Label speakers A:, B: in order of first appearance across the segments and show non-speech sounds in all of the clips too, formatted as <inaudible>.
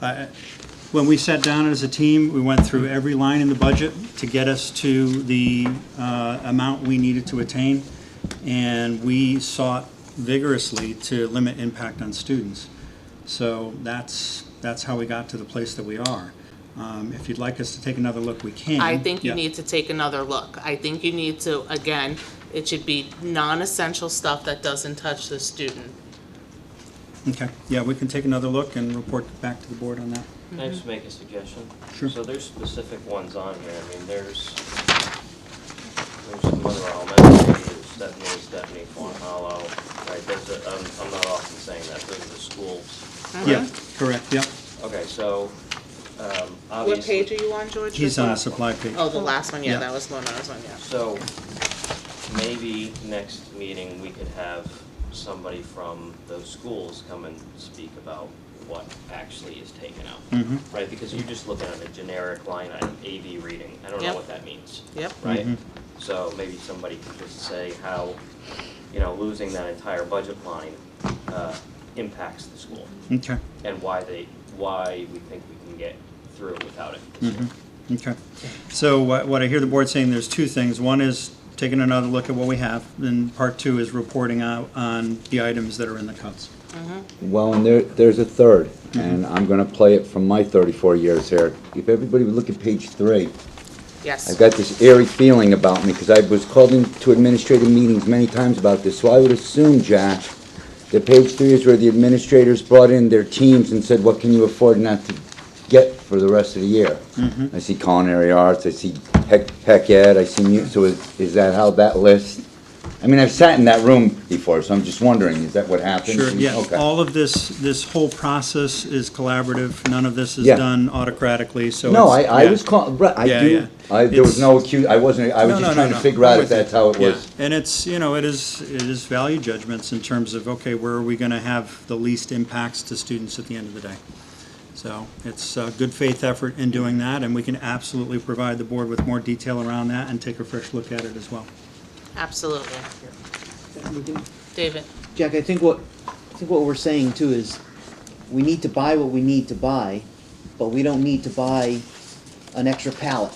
A: I- Uh, When we sat down as a team, we went through every line in the budget to get us to the uh, amount we needed to attain, and we sought vigorously to limit impact on students. So that's, that's how we got to the place that we are. Um, If you'd like us to take another look, we can.
B: I think you
A: Mm-hmm. Yeah.
B: need to take another look. I think you need to, again, it should be non-essential stuff that doesn't touch the student.
A: Okay, yeah, we can take another look and report back to the board on that.
C: Can I just make a suggestion?
A: Sure.
C: So there's specific ones on here, I mean, there's, there's some other elementary, there's Stephanie, Stephanie, Fawn Hollow, right, those are, I'm, I'm not often saying that, those are the schools.
A: Yeah, correct, yep.
C: Okay, so, um,
B: What
C: obviously.
B: page are you on, George?
A: He's on the supply page.
B: Oh, the last one,
A: Yeah.
B: yeah, that was the one I was on, yeah.
C: So, maybe next meeting, we could have somebody from those schools come and speak about what actually is taken out.
A: Mhm.
C: Right, because you're just looking at a generic line item, AV reading, I don't know
B: Yep.
C: what that means,
B: Yep,
C: right?
A: Mhm.
C: So maybe somebody could just say how, you know, losing that entire budget line, uh, impacts the school,
A: Okay,
C: and why they, why we think we can get through without it this year.
A: Mhm. okay. So what what I hear the board saying, there's two things. One is taking another look at what we have, and part two is reporting out on the items that are in the cuts.
D: Well, and there, there's a third,
A: Mm-hmm.
D: and I'm gonna play it from my thirty-four years here. If everybody would look at page three, I've
B: yes.
D: got this eerie feeling about me, because I was called into administrative meetings many times about this, so I would assume, Jack, that page three is where the administrators brought in their teams and said, what can you afford not to get for the rest of the year?
A: Mm-hmm.
D: I see culinary arts, I see heck, heck ed, I see mu, so is, is that how that list? I mean, I've sat in that room before, so I'm just wondering, is that what happened?
A: Sure, yeah,
D: Okay.
A: all of this, this whole process is collaborative. None of this is
D: Yeah.
A: done autocratically, so.
D: No, I,
A: it's-
D: I
A: yeah.
D: was calling, right, I
A: Yeah,
D: do,
A: yeah.
D: I, there
A: It's-
D: was no accuse, I wasn't, I was
A: No,
D: just
A: no, no,
D: trying to
A: no.
D: figure out
A: I'm
D: if
A: with you.
D: that's how it
A: Yeah.
D: was.
A: And it's, you know, it is, it is value judgments in terms of, okay, where are we gonna have the least impacts to students at the end of the day? So it's a good faith effort in doing that, and we can absolutely provide the board with more detail around that and take a fresh look at it as well.
B: Absolutely.
E: We can-
B: David,
E: Jack, I think what, I think what we're saying too is, we need to buy what we need to buy, but we don't need to buy an extra pallet.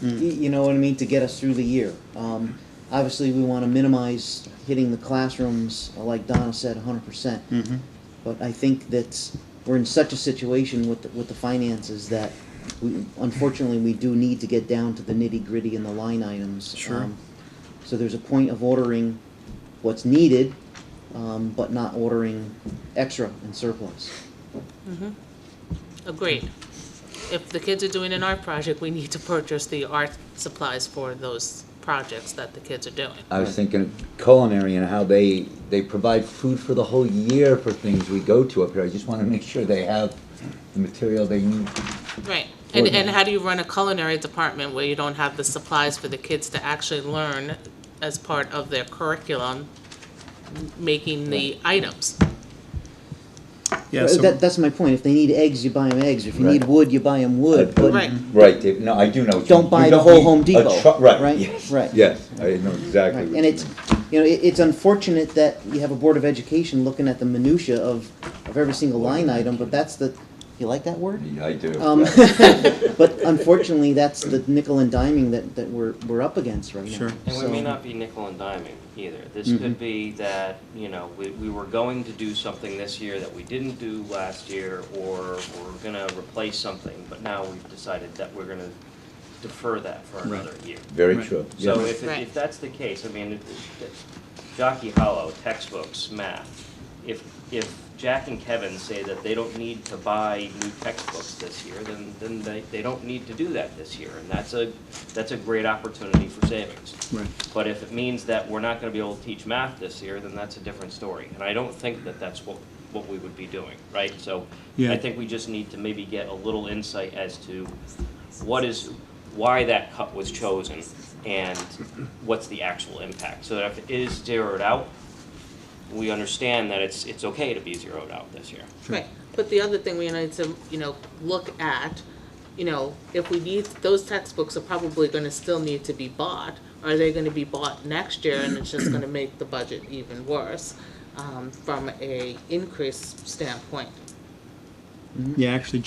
E: Y- You know what I mean, to get us through the year. Um, obviously, we wanna minimize hitting the classrooms, uh, like Donna said, hundred percent. But I think that we're in such a situation with, the- with the finances that we, unfortunately, we do need to get down to the nitty-gritty and the line items.
A: Sure.
E: Um, So there's a point of ordering what's needed, um, but not ordering extra and surplus.
B: agreed. If the kids are doing an art project, we need to purchase the art supplies for those projects that the kids are doing.
D: I was thinking of culinary and how they, they provide food for the whole year for things we go to up here. I just wanna make sure they have the material they need.
B: Right, and, and
D: Ordinary.
B: how do you run a culinary department where you don't have the supplies for the kids to actually learn as part of their curriculum, m- making the items?
A: Yeah,
E: That,
A: so,
E: that's my point. If they need eggs, you buy them eggs. If you need
D: Right.
E: wood, you buy them wood. But
B: Right.
D: Right, Dave, no, I do know. what you
E: Don't
D: mean.
E: buy
D: You
E: the
D: don't
E: whole
D: need
E: Home
D: a
E: Depot,
D: truck- Right,
E: right?
D: yes,
E: Right.
D: yes, I know exactly
E: Right,
D: what
E: And
D: you
E: it's,
D: mean.
E: you know, it, it's unfortunate that you have a Board of Education looking at the minutia of, of every single line item, but that's the, you like that word?
D: Yeah, I do.
E: Um,
D: yeah.
E: But unfortunately, that's the nickel and diming that, that we're, we're up against right now.
A: Sure.
C: And we
E: So-
C: may not be nickel and diming either. This could be that, you know, we, we were going to do something this year that we didn't do last year, or we're gonna replace something, but now we've decided that we're gonna defer that for
A: Right.
C: another year.
D: Very
A: Right.
E: <laughs>
D: true.
C: So
D: yeah.
C: if,
B: Right.
C: if that's the case, I mean, it- it- Jockey Hollow, textbooks, math, if, if Jack and Kevin say that they don't need to buy new textbooks this year, then, then they, they don't need to do that this year, and that's a, that's a great opportunity for savings.
A: right,
C: But if it means that we're not gonna be able to teach math this year, then that's a different story. And I don't think that that's what, what we would be doing, right? So
A: Yeah.
C: I think we just need to maybe get a little insight as to what is, why that cut was chosen and what's the actual impact. So that if it is zeroed out, we understand that it's, it's okay to be zeroed out this year.
B: Right, but the other thing we need to, you know, look at, you know, if we need, those textbooks are probably gonna still need to be bought. Are they gonna be bought next year and it's just gonna make the budget even worse, um, from a increase standpoint?
A: yeah, actually,